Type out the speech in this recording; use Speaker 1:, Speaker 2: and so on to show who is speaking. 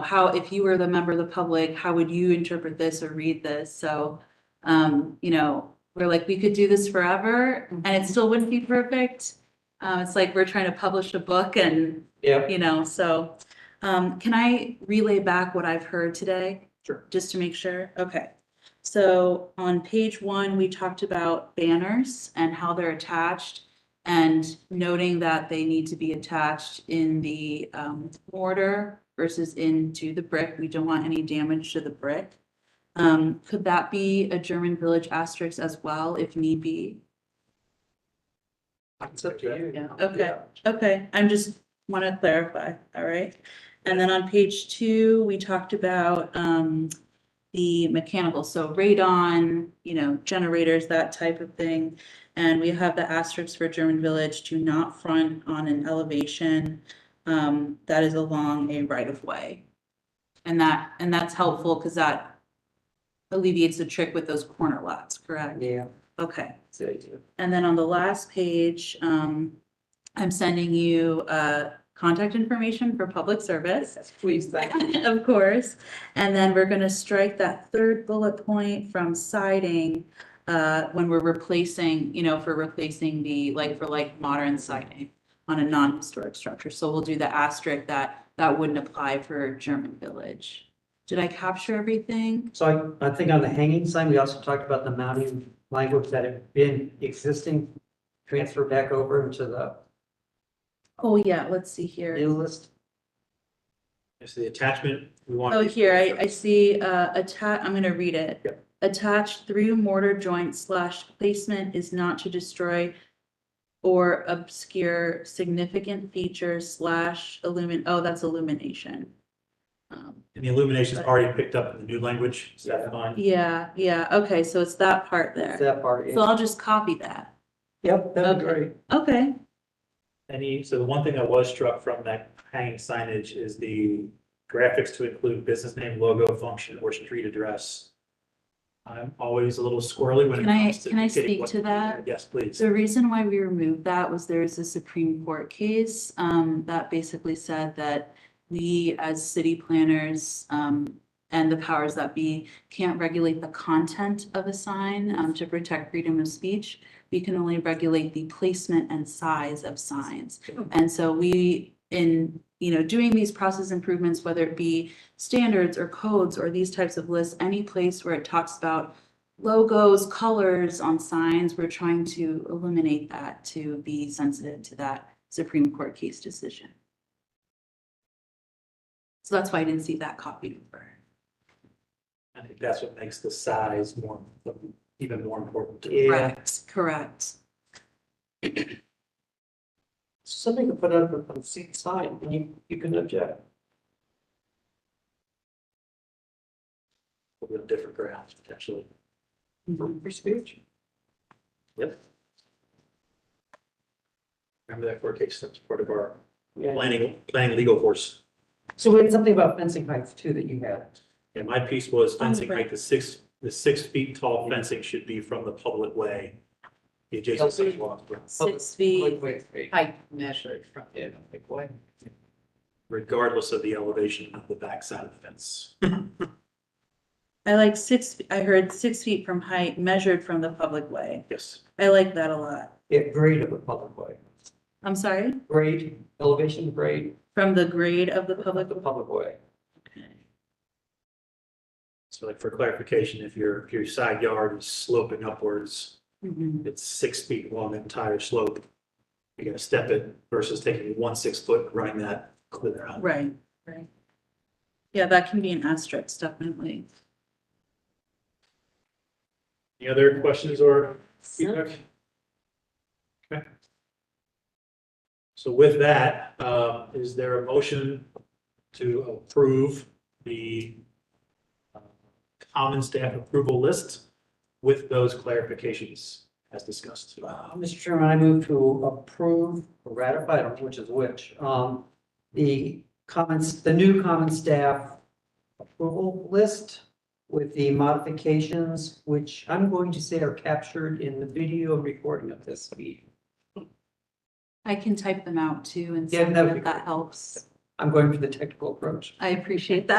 Speaker 1: how, if you were the member of the public, how would you interpret this or read this? So, um, you know, we're like, we could do this forever and it still wouldn't be perfect. Uh, it's like we're trying to publish a book and,
Speaker 2: Yeah.
Speaker 1: you know, so, um, can I relay back what I've heard today?
Speaker 2: Sure.
Speaker 1: Just to make sure, okay. So on page one, we talked about banners and how they're attached and noting that they need to be attached in the um mortar versus into the brick. We don't want any damage to the brick. Um, could that be a German village asterisk as well if need be?
Speaker 2: It's up to you.
Speaker 1: Yeah, okay. Okay, I'm just want to clarify, all right? And then on page two, we talked about um the mechanical, so radon, you know, generators, that type of thing. And we have the asterisks for German Village, do not front on an elevation um that is along a right of way. And that, and that's helpful because that alleviates the trick with those corner lots, correct?
Speaker 2: Yeah.
Speaker 1: Okay.
Speaker 2: it's the idea.
Speaker 1: And then on the last page, um, I'm sending you, uh, contact information for public service.
Speaker 2: Please, thank you.
Speaker 1: Of course, and then we're gonna strike that third bullet point from siding, uh, when we're replacing, you know, for replacing the like for like modern siding on a non-historic structure, so we'll do the asterisk that, that wouldn't apply for German Village. Did I capture everything?
Speaker 3: So I, I think on the hanging sign, we also talked about the mounting language that had been existing, transfer back over into the
Speaker 1: Oh, yeah, let's see here.
Speaker 3: new list.
Speaker 4: It's the attachment we want.
Speaker 1: Oh, here, I, I see, uh, attach, I'm gonna read it. Attached through mortar joint slash placement is not to destroy or obscure significant features slash illumin, oh, that's illumination. Um,
Speaker 4: And the illumination's already picked up in the new language, is that fine?
Speaker 1: Yeah, yeah, okay, so it's that part there.
Speaker 3: That part,
Speaker 1: So I'll just copy that.
Speaker 3: yep, that'd be
Speaker 1: Okay.
Speaker 3: great.
Speaker 1: Okay,
Speaker 4: Any, so the one thing that was struck from that hanging signage is the graphics to include business name, logo, function, or street address. I'm always a little squirrely when it
Speaker 1: Can I-
Speaker 4: comes to.
Speaker 1: can I
Speaker 4: dictating
Speaker 1: speak
Speaker 4: what-
Speaker 1: to that?
Speaker 4: Yes, please.
Speaker 1: The reason why we removed that was there was a Supreme Court case um that basically said that we as city planners um and the powers that be can't regulate the content of a sign um to protect freedom of speech. We can only regulate the placement and size of signs. And so we in, you know, doing these process improvements, whether it be standards or codes or these types of lists, any place where it talks about logos, colors on signs, we're trying to eliminate that to be sensitive to that Supreme Court case decision. So that's why I didn't see that copy over.
Speaker 4: I think that's what makes the size more, even more important.
Speaker 3: Yeah,
Speaker 1: Correct, correct.
Speaker 3: something to put up on the seat side, and you, you can object.
Speaker 4: With different grounds potentially.
Speaker 5: Mm-hmm.
Speaker 3: For speech.
Speaker 4: Remember that court case, that's part of our
Speaker 3: Yeah.
Speaker 4: planning, planning legal force.
Speaker 3: So we had something about fencing heights too that you had.
Speaker 4: And my piece was fencing,
Speaker 1: right.
Speaker 4: like the six, the six feet tall fencing should be from the public way. The adjacent
Speaker 3: Healthy.
Speaker 4: sidewalk,
Speaker 1: Six feet,
Speaker 3: Wait, wait,
Speaker 5: I measured from.
Speaker 3: yeah, like what?
Speaker 4: regardless of the elevation of the backside of the fence.
Speaker 1: I like six, I heard six feet from height measured from the public way.
Speaker 4: Yes.
Speaker 1: I like that a lot.
Speaker 3: Yeah, grade of the public way,
Speaker 1: I'm sorry,
Speaker 3: grade, elevation grade
Speaker 1: from the grade of the public,
Speaker 3: of the public way.
Speaker 4: So like for clarification, if your, if your side yard is sloping upwards,
Speaker 5: Mm-hmm.
Speaker 1: Mhm.
Speaker 4: it's six feet along the entire slope. You're gonna step it versus taking one six foot, and running that clear out.
Speaker 1: right, right. Yeah, that can be an asterisk, definitely.
Speaker 4: Any other questions or feedback? Okay. So with that, uh, is there a motion to approve the uh, common staff approval list with those clarifications as discussed?
Speaker 3: Uh, Mr. Chairman, I move to approve, or ratify, I don't know which is which, um, the comments, the new common staff approval list with the modifications, which I'm going to say are captured in the video recording of this meeting.
Speaker 1: I can type them out too and
Speaker 3: Yeah,
Speaker 1: send
Speaker 3: that
Speaker 1: them
Speaker 3: would
Speaker 1: if
Speaker 3: be
Speaker 1: that helps.
Speaker 6: I'm going for the technical approach.
Speaker 3: I appreciate that.